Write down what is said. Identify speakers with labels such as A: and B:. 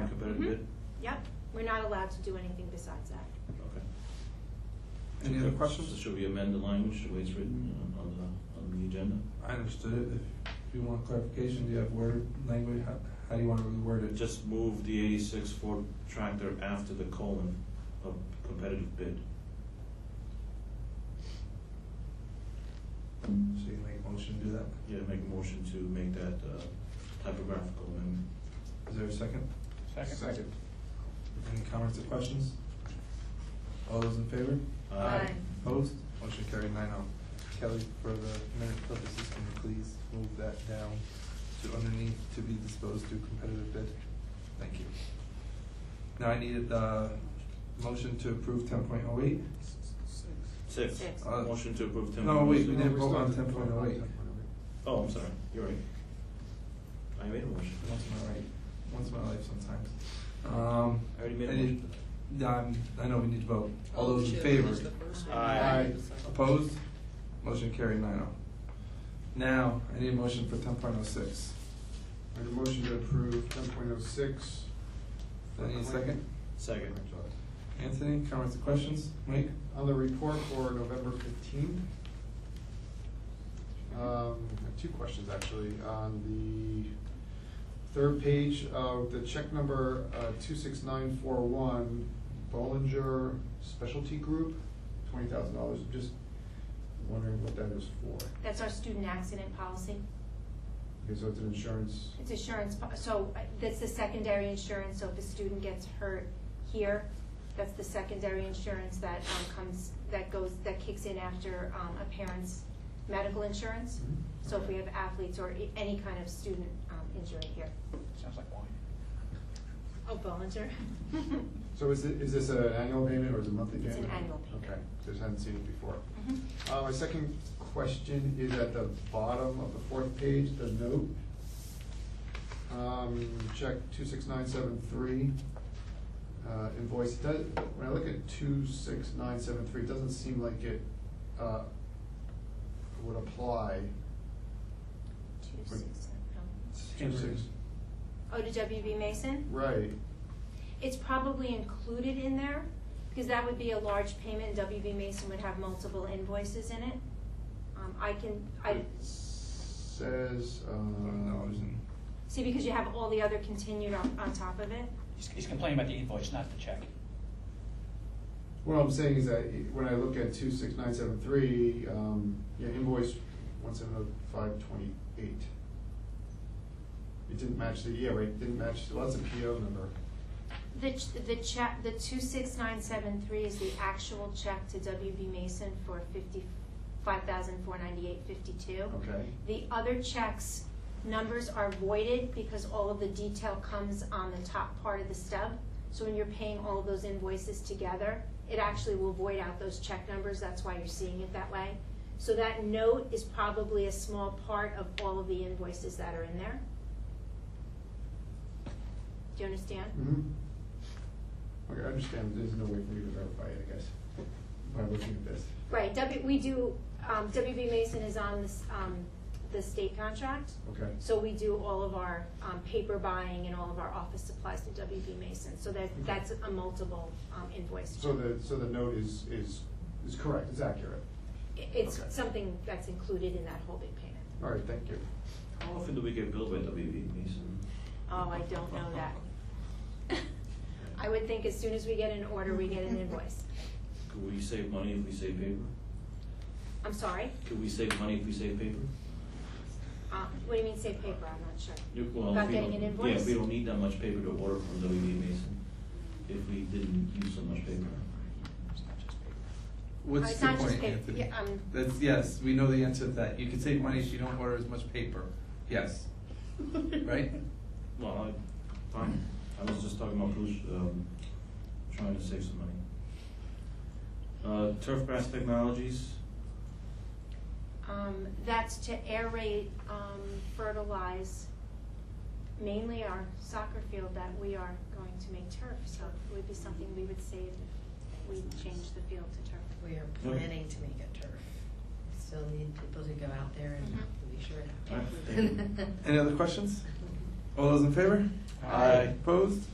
A: competitive
B: Mhm.
A: bid?
B: Yep, we're not allowed to do anything besides that.
A: Okay.
C: Any other
A: Okay.
C: questions?
A: So Should we amend the language the way it's written on- on the, on the agenda?
C: I understood it. If you want clarification, do you have word, language, how, how do you want to reword it?
A: Just move the eighty-six Ford tractor after the colon of competitive bid.
C: So you make a motion, to do that.
A: Yeah, make a motion to make that uh, typographical amendment.
C: Is there a second?
D: Second.
C: Any comments or questions? All those in favor?
A: Aye.
C: Opposed? Motion carried nine oh. Kelly, for the minute purposes, can you please move that down to underneath to be disposed to competitive bid? Thank you. Now I needed the motion to approve ten point oh eight.
A: Six.
B: Six.
C: Uh,
A: Motion to approve ten.
C: No, wait, we
A: six.
C: didn't vote on ten point oh eight.
A: Oh, I'm sorry, you're right. I made a motion.
C: Once in my right, once in my life sometimes. Um,
A: I already made a
C: Any-
A: motion.
C: um, I know we need to vote. All those in favor?
A: Aye.
C: Opposed? Motion carried nine oh. Now, I need a motion for ten point oh six.
D: I have a motion to approve ten point oh six.
C: I need a second.
A: Second.
C: Anthony, comments or questions? Mike?
D: On the report for November fifteenth. Um, I have two questions actually. On the third page of the check number, uh, two six nine four one, Bollinger Specialty Group, twenty thousand dollars. Just wondering what that is for.
B: That's our student accident policy.
D: Okay, so it's an insurance.
B: It's insurance, po- so uh, that's the secondary insurance, so if a student gets hurt here, that's the secondary insurance that um, comes, that goes, that kicks in after um, a parent's medical insurance. So if we have athletes or i- any kind of student um, injury here.
E: Sounds like wine.
B: Oh, Bollinger.
D: So is it, is this an annual payment or is it monthly
B: It's
D: payment?
B: an annual payment.
D: Okay, just hadn't seen it before. Uh, my second question is at the bottom of the fourth page, the note. Um, check two six nine seven three, uh, invoice, It does, when I look at two six nine seven three, it doesn't seem like it, uh, would apply.
B: Two, six, seven, oh.
D: Two six,
B: Oh, to WB Mason?
D: right,
B: It's probably included in there, because that would be a large payment, and WB Mason would have multiple invoices in it. Um, I can, I,
D: it says, uh,
C: Dollars
D: um,
C: and
B: see, because you have all the other continued on, on top of it.
E: He's, he's complaining about the invoice, not the check.
D: What I'm saying is that when I look at two six nine seven three, um, yeah, invoice one seven oh five twenty-eight. It didn't match the, yeah, right, it didn't match, well, that's a PO number.
B: The, ch- the check, the two six nine seven three is the actual check to WB Mason for fifty-five thousand four ninety-eight fifty-two.
D: Okay,
B: The other checks, numbers are voided because all of the detail comes on the top part of the stub. So when you're paying all of those invoices together, it actually will void out those check numbers, that's why you're seeing it that way. So that note is probably a small part of all of the invoices that are in there. Do you understand?
D: mm-hmm. Okay, I understand, there's no way for me to verify it, I guess, by looking at this.
B: Right, W, we do, um, WB Mason is on this, um, the state contract.
D: Okay,
B: So we do all of our um, paper buying and all of our office supplies to WB Mason, so that, that's a multiple um, invoice.
D: Mm-hmm. so the, so the note is, is, is correct, is accurate.
B: I- It's
D: okay.
B: something that's included in that whole big payment.
D: All right, thank you.
A: How often do we get billed by WB Mason?
B: Oh, I don't know that. I would think as soon as we get an order, we get an invoice.
A: Could we save money if we save paper?
B: I'm sorry,
A: Could we save money if we save paper?
B: Uh, what do you mean save paper, I'm not sure.
A: You- well, if
B: Without
A: we
B: getting
A: don't-
B: an invoice?
A: Yeah, we don't need that much paper to order from WB Mason if we didn't use so much paper.
E: It's not just paper.
B: Uh,
C: What's
B: it's
C: the
B: not just
C: point,
B: paper.
C: Anthony?
B: Yeah, um,
C: That's, yes, we know the answer to that. You can save money if you don't order as much paper. Yes, right?
A: Well, I, fine, I was just talking about push, um, trying to save some money. Uh, Turf Grass Technologies,
B: Um, that's to aerate, um, fertilize mainly our soccer field that we are going to make turf, so it would be something we would save if we changed the field to turf.
F: We are planning to make it turf. Still need people to go out there and
B: Mhm.
F: be sure it
A: All right,
F: happens.
A: thank you.
C: Any other questions? All those in favor?
E: Aye.
C: Opposed?